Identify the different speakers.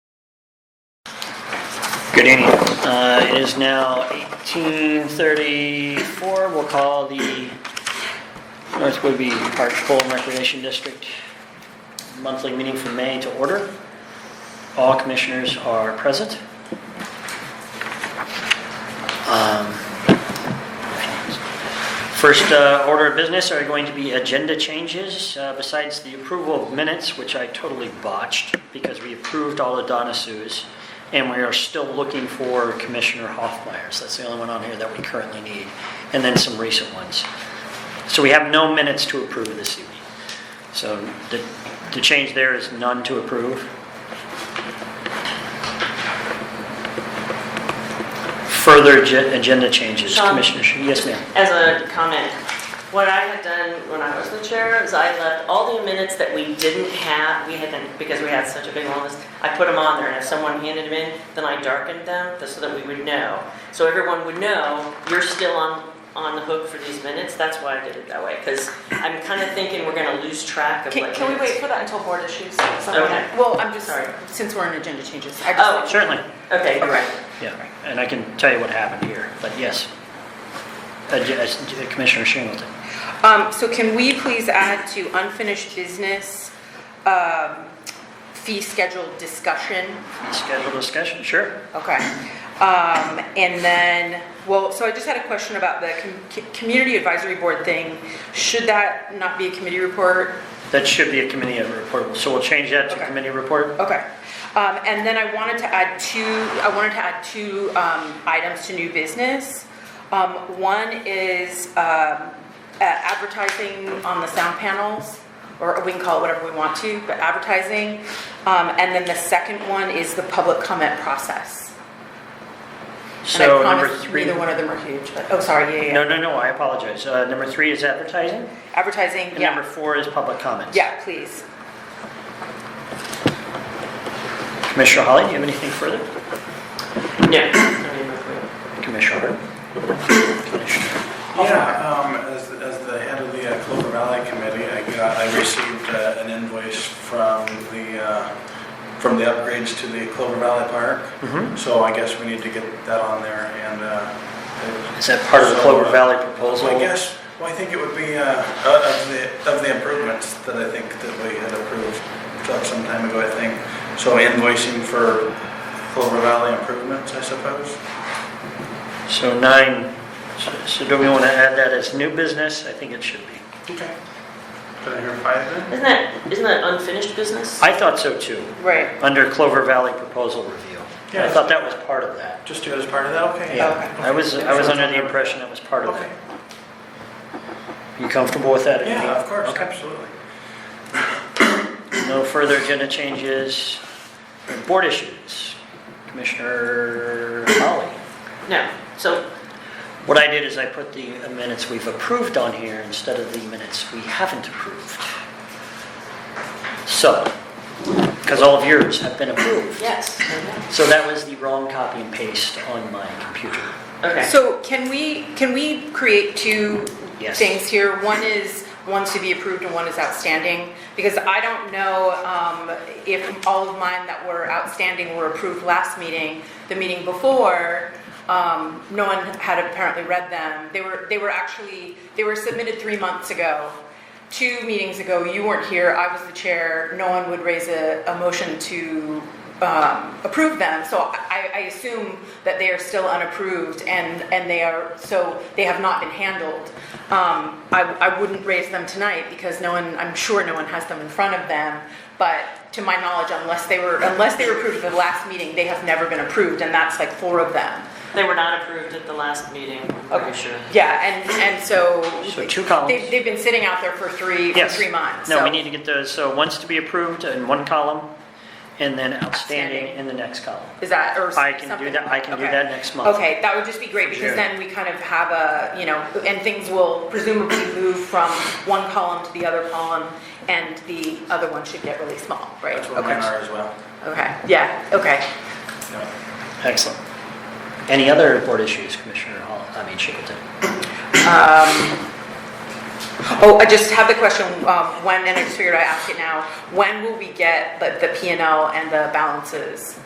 Speaker 1: Good evening.
Speaker 2: Uh, It is now 18:34. We'll call the North Woodby Park Bowl and Recreation District monthly meeting for May to order. All commissioners are present. Um, First uh, order of business are going to be agenda changes, uh, besides the approval of minutes, which I totally botched, because we approved all the Donna Sue's, and we are still looking for Commissioner Hoffmeyer's. That's the only one on here that we currently need, and then some recent ones. So we have no minutes to approve this evening. So the, the change there is none to approve. Further agen- agenda changes,
Speaker 3: Sean?
Speaker 2: Commissioner, Shu- yes ma'am.
Speaker 3: As a comment, what I had done when I was the chair is I left all the minutes that we didn't have, we had them, because we had such a big long list, I put them on there, and if someone handed them in, then I darkened them, just so that we would know. So everyone would know, you're still on, on the hook for these minutes, that's why I did it that way, because I'm kind of thinking we're gonna lose track of
Speaker 4: Can,
Speaker 3: what
Speaker 4: can we wait
Speaker 3: minutes.
Speaker 4: for that until board issues?
Speaker 3: Okay.
Speaker 4: Well, I'm just,
Speaker 3: Sorry.
Speaker 4: since we're on agenda changes, I
Speaker 3: Oh.
Speaker 4: just,
Speaker 2: Certainly,
Speaker 3: Okay, you're right.
Speaker 2: yeah, and I can tell you what happened here, but yes. Uh, J- uh, Commissioner Shingleton.
Speaker 4: um, so can we please add to unfinished business, um, fee schedule discussion?
Speaker 2: Schedule discussion, sure.
Speaker 4: Okay. Um, and then, well, so I just had a question about the com- c- community advisory board thing. Should that not be a committee report?
Speaker 2: That should be a committee report, so we'll change that to
Speaker 4: Okay.
Speaker 2: committee report.
Speaker 4: Okay. Um, and then I wanted to add two, I wanted to add two, um, items to new business. Um, one is, um, uh, advertising on the sound panels, or we can call it whatever we want to, but advertising. Um, and then the second one is the public comment process. And I
Speaker 2: So number
Speaker 4: promise
Speaker 2: three.
Speaker 4: Neither one of them are huge, but, oh, sorry, yeah, yeah,
Speaker 2: No,
Speaker 4: yeah.
Speaker 2: no, no, I apologize. Uh, Number three is advertising,
Speaker 4: Advertising,
Speaker 2: and number
Speaker 4: yeah,
Speaker 2: four is public comments.
Speaker 4: yeah, please.
Speaker 2: Commissioner Holly, do you have anything further?
Speaker 3: No. I mean, we're-
Speaker 2: Commissioner Hart? Commissioner.
Speaker 5: Yeah, um, as, as the head of the uh, Clover Valley Committee, I got, I received uh, an invoice from the, uh, from the upgrades to the Clover Valley Park.
Speaker 2: Mhm.
Speaker 5: So I guess we need to get that on there and, uh,
Speaker 2: Is that part of the Clover Valley proposal?
Speaker 5: I guess, well, I think it would be, uh, of the, of the improvements that I think that we had approved uh, some time ago, I think. So invoicing for Clover Valley improvements, I suppose.
Speaker 2: So nine, so- so do we want to add that as new business? I think it should be.
Speaker 5: Okay. Did I hear five then?
Speaker 3: Isn't that, isn't that unfinished business?
Speaker 2: I thought so too.
Speaker 4: Right.
Speaker 2: under Clover Valley proposal review. I
Speaker 5: Yeah.
Speaker 2: thought that was part of that.
Speaker 5: Just do it as part of that, okay?
Speaker 2: Yeah, I was, I was under the impression that was part of
Speaker 5: Okay.
Speaker 2: that. You comfortable with that?
Speaker 5: Yeah, of course,
Speaker 2: Okay.
Speaker 5: absolutely.
Speaker 2: No further agenda changes. Board issues. Commissioner Holly.
Speaker 3: No, so
Speaker 2: What I did is I put the minutes we've approved on here instead of the minutes we haven't approved. So, because all of yours have been approved.
Speaker 3: Yes.
Speaker 2: So that was the wrong copy and paste on my computer.
Speaker 3: Okay.
Speaker 4: So can we, can we create two
Speaker 2: Yes.
Speaker 4: things here? One is, one to be approved and one is outstanding? Because I don't know um, if all of mine that were outstanding were approved last meeting, the meeting before, um, no one had apparently read them. They were, they were actually, they were submitted three months ago. Two meetings ago, you weren't here, I was the chair, no one would raise a, a motion to um, approve them, so I, I assume that they are still unapproved and, and they are, so they have not been handled. Um, I, I wouldn't raise them tonight because no one, I'm sure no one has them in front of them, but to my knowledge, unless they were, unless they were approved at the last meeting, they have never been approved, and that's like four of them.
Speaker 3: They were not approved at the last meeting, I'm pretty sure.
Speaker 4: Yeah, and, and so.
Speaker 2: So two columns.
Speaker 4: They've, they've been sitting out there for three, for
Speaker 2: Yes.
Speaker 4: three months,
Speaker 2: No,
Speaker 4: so-
Speaker 2: we need to get those, so once to be approved in one column, and then outstanding
Speaker 4: Outstanding.
Speaker 2: in the next column.
Speaker 4: Is that, or
Speaker 2: I
Speaker 4: something?
Speaker 2: can do that- I can do
Speaker 4: okay.
Speaker 2: that next month.
Speaker 4: Okay, that would just be great, because
Speaker 5: Sure.
Speaker 4: then we kind of have a, you know, and things will presumably move from one column to the other column, and the other one should get really small, right?
Speaker 5: That's what mine
Speaker 4: Okay.
Speaker 5: are as well.
Speaker 4: Okay, yeah, okay.
Speaker 5: Yeah.
Speaker 2: Excellent. Any other board issues, Commissioner Hall, I mean Shingleton?
Speaker 4: Oh, I just have the question, um, when, and I just figured I'd ask it now, when will we get the P and L and the balances